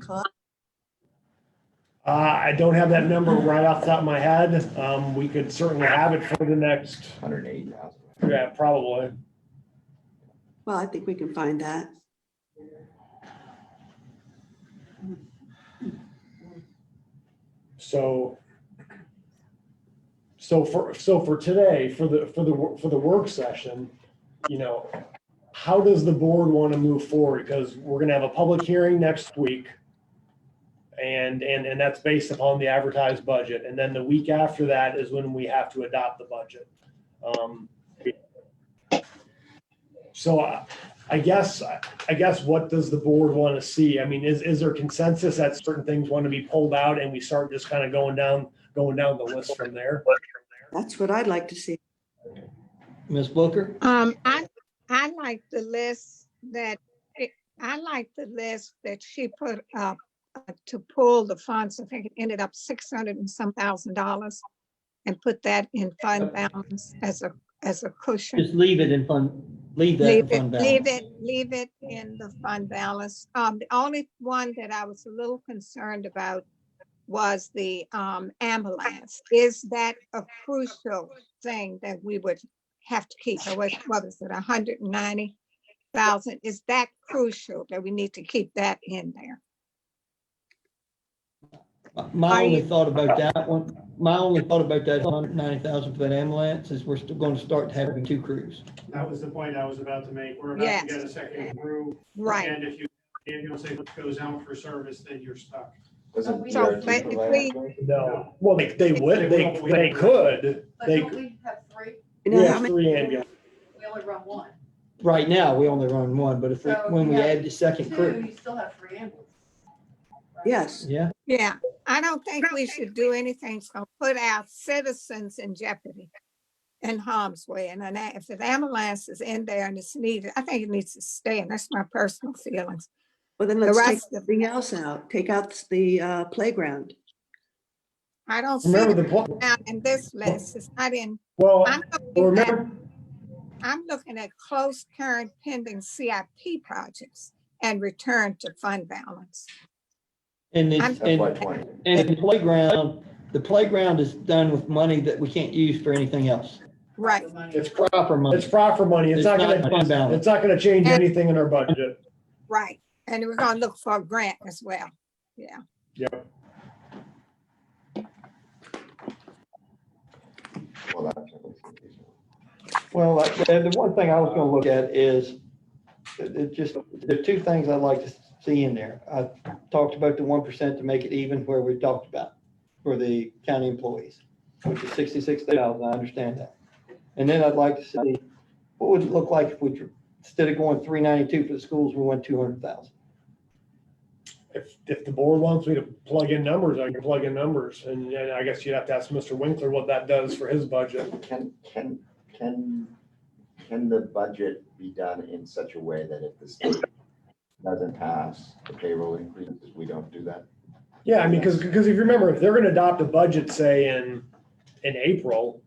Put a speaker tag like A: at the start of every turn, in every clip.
A: cost?
B: Uh, I don't have that number right off the top of my head. Um, we could certainly have it for the next,
C: Hundred and eighty thousand.
B: yeah, probably.
A: Well, I think we can find that.
B: So. So for, so for today, for the, for the, wor- for the work session, you know, how does the board want to move forward? Because we're going to have a public hearing next week. And, and, and that's based upon the advertised budget. And then the week after that is when we have to adopt the budget. Um, So I, I guess, I guess what does the board want to see? I mean, is, is there consensus that certain things want to be pulled out and we start just kind of going down, going down the list from there?
A: That's what I'd like to see.
D: Ms. Booker?
E: Um, I, I like the list that, eh, I like the list that she put up uh, to pull the funds, I think it ended up six hundred and some thousand dollars and put that in fund balance as a, as a cushion.
D: Just leave it in fund, leave that in
E: Leave it,
D: fund
E: leave
D: balance.
E: it, leave it in the fund balance. Um, the only one that I was a little concerned about was the, um, ambulance. Is that a crucial thing that we would have to keep? Or What, what is it, hundred and ninety thousand? Is that crucial that we need to keep that in there?
D: My
E: Are
D: only
E: you-
D: thought about that one, my only thought about that hundred ninety thousand for that ambulance is we're still gonna start having two crews.
F: That was the point I was about to make. We're about to get a second crew.
E: Right.
F: And if you, ambulance goes out for service, then you're stuck.
E: Oh,
C: Wasn't
G: So
C: DRT
E: let- if
C: provided
E: we-
C: for
B: No, well, they, they would, they, they could.
G: But
B: They,
G: don't we have three?
A: You
B: we
A: know how
B: have
A: many,
B: three ambulances.
G: We only run one.
D: Right now, we only run one, but if, we
G: So,
D: when we
G: yeah,
D: add the second
G: Two,
D: crew,
G: you still have three ambulances. right?
A: yes,
D: yeah,
E: Yeah, I don't think we should do anything that's gonna put our citizens in jeopardy in harm's way. And an a- if an ambulance is in there and it's needed, I think it needs to stay, and that's my personal feelings.
A: well then
E: The
A: let's take
E: rest of,
A: something else out. Take out the uh, playground.
E: I don't see
B: Remember
E: it
B: the, pl-
E: now in this list, it's not in,
B: well,
E: I'm looking at,
B: remember,
E: I'm looking at close current pending CIP projects and return to fund balance.
D: and
E: I'm-
D: it's,
C: FY
D: and,
C: twenty.
D: and the playground, the playground is done with money that we can't use for anything else.
E: Right,
G: The money.
B: it's, pro-
D: Proper
B: it's
D: money.
B: proper money. It's
D: It's
B: not
D: not fund
B: gonna,
D: balance.
B: it's not gonna change anything in our budget.
E: right. And we're gonna look for a grant as well.
C: Well, that's-
D: Well, like, the the one thing I was gonna look at is, it it just, there are two things I'd like to see in there. I talked about the one percent to make it even where we talked about for the county employees, which is sixty-six thousand, I understand that. And then I'd like to see, what would it look like if we, dr- instead of going three ninety-two for the schools, we went two hundred thousand?
B: If, if the board wants me to plug in numbers, I can plug in numbers. And, and I guess you'd have to ask Mr. Winkler what that does for his budget.
H: Can, can, can, can the budget be done in such a way that if the state doesn't pass the payroll increases, we don't do that?
B: Yeah, I mean, because, if you remember, if they're gonna adopt a budget, say, in, in April,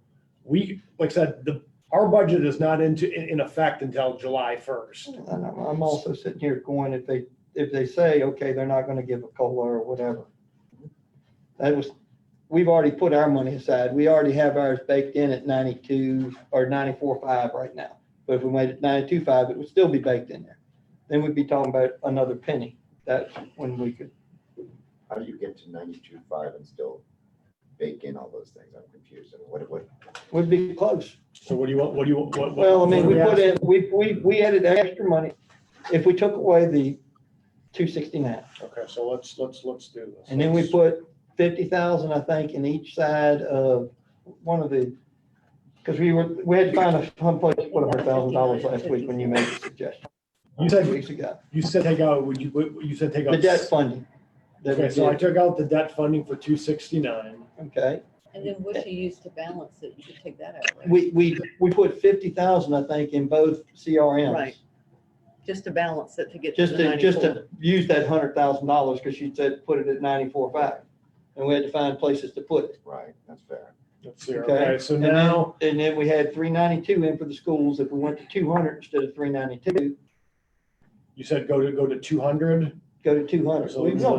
B: we, like I said, the, our budget is not into, in, in effect until July first.
D: And I'm I'm also sitting here going, if they, if they say, okay, they're not gonna give a COLA or whatever. That was, we've already put our money aside. We already have ours baked in at ninety-two or ninety-four five right now. But if we made it ninety-two five, it would still be baked in there. Then we'd be talking about another penny. That's when we could,
H: How do you get to ninety-two five and still bake in all those things? I'm confused. And what, what,
D: we'd be close.
B: So what do you want, what do you, what? what-
D: Well, I mean,
B: what
D: we
B: do
D: put
B: ask?
D: in, we, we, we added extra money. If we took away the two sixty-nine.
B: Okay, so let's, let's, let's do this.
D: And then we put fifty thousand, I think, in each side of one of the, because we were, we had to find a someplace, what, a hundred thousand dollars last week when you made the suggestion.
B: You
D: Two
B: said,
D: weeks ago.
B: you said take out, would you, what- you said take out.
D: The debt funding. that we
B: Okay, so I
D: did,
B: took out the debt funding for two sixty-nine.
D: Okay,
G: And then what you use to balance it, you could take that out, right?
D: we, we, we put fifty thousand, I think, in both CRMs.
G: Right. Just to balance it to get to
D: Just
G: the
D: to, just
G: ninety-four.
D: to use that hundred thousand dollars, because you said put it at ninety-four five. And we had to find places to put it.
H: right, that's fair.
B: Let's see,
D: Okay.
B: okay, so
D: And then-
B: now,
D: And then we had three ninety-two in for the schools. If we went to two hundred instead of three ninety-two,
B: you said go to, go to two hundred?
D: go to two hundred.
B: So
D: We
B: it's
D: know